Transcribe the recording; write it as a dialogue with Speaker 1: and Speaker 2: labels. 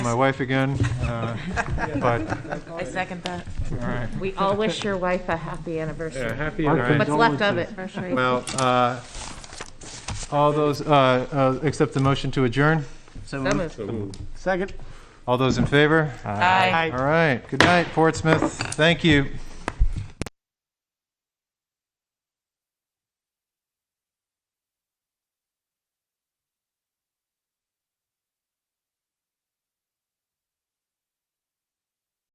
Speaker 1: my wife again, uh, but,
Speaker 2: I second that.
Speaker 1: all right.
Speaker 3: We all wish your wife a happy
Speaker 1: Yeah,
Speaker 3: anniversary.
Speaker 1: happy
Speaker 4: Our
Speaker 1: anniversary.
Speaker 3: What's left of it?
Speaker 1: Well, uh, all those, uh, uh, accept the motion to adjourn?
Speaker 3: So moved.
Speaker 4: Second.
Speaker 1: All those in favor?
Speaker 2: Aye.
Speaker 1: All right, good night, Portsmouth, thank you.